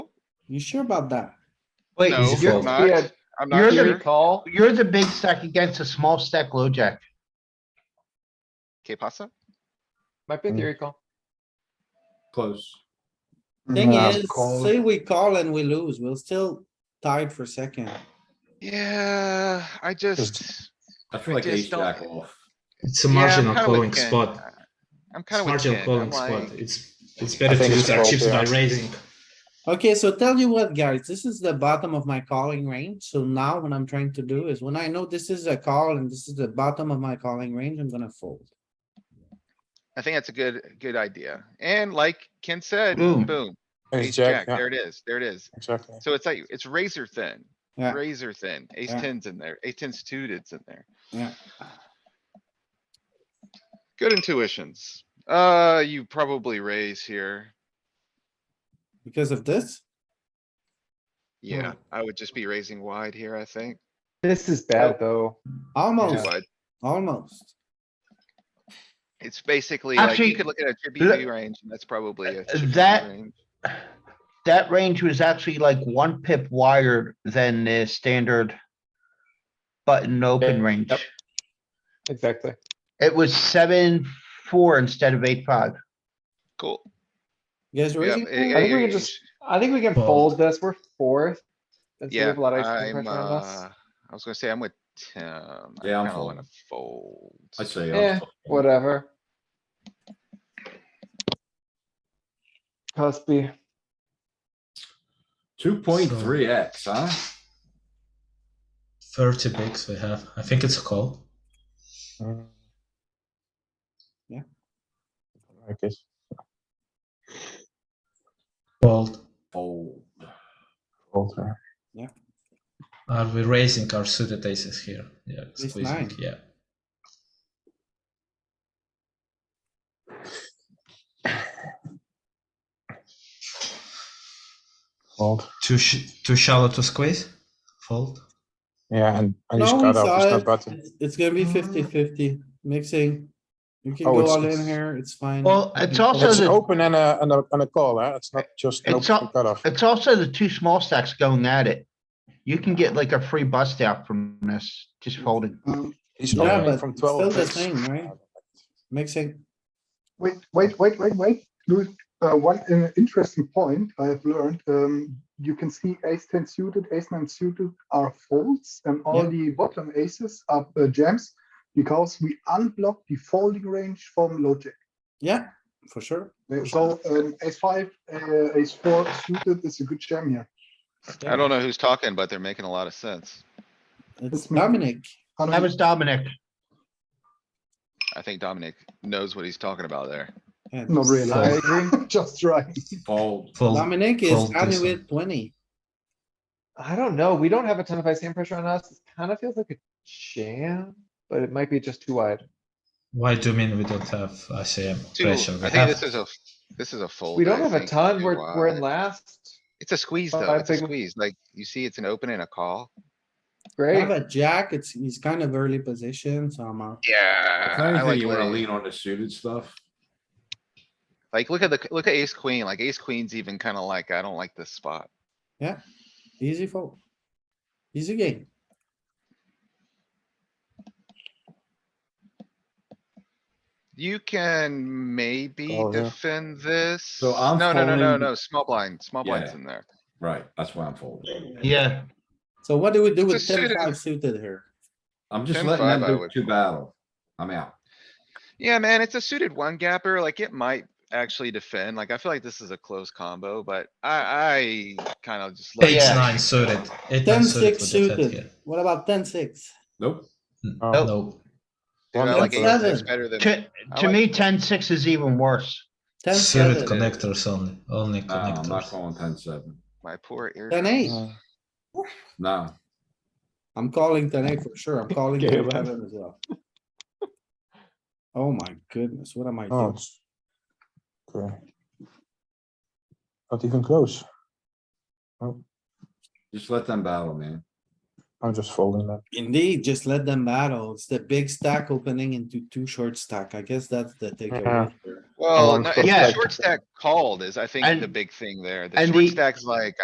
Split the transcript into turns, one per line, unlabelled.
You sure about that?
Wait,
No,
you're,
I'm not.
yeah,
I'm
You're
not
the-
here. Call.
you're the big stack against a small stack low jack.
Que pasa?
Might be a
Mm.
theory call.
Close.
Thing
Nah,
is,
call.
say we call and we lose, we'll still tied for second.
Yeah, I just.
I feel
I
like ace
just don't-
jack off.
It's a
yeah, I'm
marginal
kinda with
calling
Ken.
spot.
I'm
It's
kinda with
marginal
Ken. I'm
calling
like,
spot. It's it's better to
think it's
use our
called,
chips by
yeah.
raising.
Okay, so tell you what, guys, this is the bottom of my calling range. So now what I'm trying to do is when I know this is a call and this is the bottom of my calling range, I'm gonna fold.
I think that's a good, good idea. And like Ken said,
Boom.
boom,
Ace jack, yeah,
there it is, there it is.
exactly.
So it's like, it's razor thin,
Yeah.
razor thin. Ace
Yeah.
tens in there, ace tens suited's in there.
Yeah.
Good intuitions. Uh, you probably raise here.
Because of this,
Yeah, I would just be raising wide here, I think.
This is bad, though.
almost,
But
almost.
it's basically like,
Actually,
you could look at a
le-
GBV range and that's probably a.
Uh,
6B
that-
range.
That range was actually like one pip wider than the standard button open
Yep.
range.
Exactly.
It was seven, four instead of eight, five.
Cool.
You guys
Yeah,
raising?
yeah,
now?
yeah,
I think we
you're-
could just- I think we can
Fold.
fold this. We're fourth. That's gonna
Yeah,
leave a lot of ice
I'm,
pressure on us.
uh, I was gonna say, I'm with Tim. I
Yeah, I'm
kinda
folding.
wanna Fold.
I say.
Yeah, whatever. Cuspy.
Two point three X, huh?
30 bigs we have. I think it's a call. Fold.
Fold.
Are we raising our suited aces here? Yeah,
Ace
squeezing.
nine.
Yeah.
Fold.
Too sh- too shallow to squeeze. Fold.
Yeah, and, and you
No, we
shut up,
saw
there's no
it.
button.
It's gonna be 50-50 mixing. You can
Oh,
go
it's-
all in
it's-
here, it's fine.
Well, it's also
It's
the-
open and a, and a, and a call, eh? It's not just an
It's
open
not-
cutoff.
It's also the two small stacks going at it. You can get like a free bust out from this, just folding.
Mm-hmm.
He's
Yeah,
opening
but
from
it's still
twelve.
the same, right? Mixing.
Wait, wait, wait, wait, wait. Louis, uh, one uh, interesting point I have learned, um, you can see ace ten suited, ace nine suited are folds and all the bottom aces are uh, jams because we unblock the folding range from logic.
Yeah, for sure.
Uh, So, um, ace five, uh, ace four suited is a good jam here.
I don't know who's talking, but they're making a lot of sense.
It's
It's me.
Dominic.
How
That
do
was Dominic.
I think Dominic knows what he's talking about there.
Yeah,
you- Not really,
Fold.
I agree, just right.
Fold.
Fold.
Dominic is
Fold
only
this
with twenty.
I don't know. We don't have a ton of ice hand pressure on us. It kind of feels like a jam, but it might be just too wide.
Why do you mean we don't have ICM
Two, I
pressure? We
think
have-
this is a, this is a fold.
We don't
I
have a
think,
ton.
too,
We're, we're in
uh,
last.
It's a squeeze though.
five
It's a
big-
squeeze. Like, you see, it's an open and a call.
I
Great.
have a jack, it's, he's kind of early position, so I'm out.
Yeah.
If
I
anything,
like
you wanna
laying.
lean on the suited stuff.
Like, look at the, look at ace queen, like ace queen's even kinda like, I don't like this spot.
Easy fold. Easy game.
You can maybe
Oh, yeah.
defend this.
So I'm
No, no, no, no,
folding-
no, small blind, small blind's
Yeah.
in there.
Right, that's why I'm folding.
Yeah,
So what do we do with
Just suited.
10-5 suited here?
I'm just
10-5
letting them
I
do
would
two
fold.
battle. I'm out.
Yeah, man, it's a suited one gapper, like it might actually defend, like I feel like this is a close combo, but I, I kinda just. let it
Yeah.
Ace
go.
nine suited. Eight nine
10-6
suited with the
suited.
fat here.
What about 10-6?
Nope.
Oh,
Nope.
No.
Dude, I like
Ten
ace six
seven.
better than,
to,
I
to
like-
me, ten six is even worse.
10-7,
Suited
con-
connectors only. Only
No, I'm not
connectors.
calling ten seven.
my poor ear.
10-8.
No.
I'm calling 10-8 for sure. I'm calling
Okay,
10-7
man.
as well. Oh my goodness, what am I
Oh,
doing?
it's- okay. Not even close.
Just let them battle, man.
I'm just folding that.
Indeed, just let them battle. It's the big stack opening into two short stack. I guess that's the takeaway. here.
Well,
Along
no,
with
it's
Yeah.
the short stack called is, I think, the
And-
big thing there. The
and
short
the-
stack's like,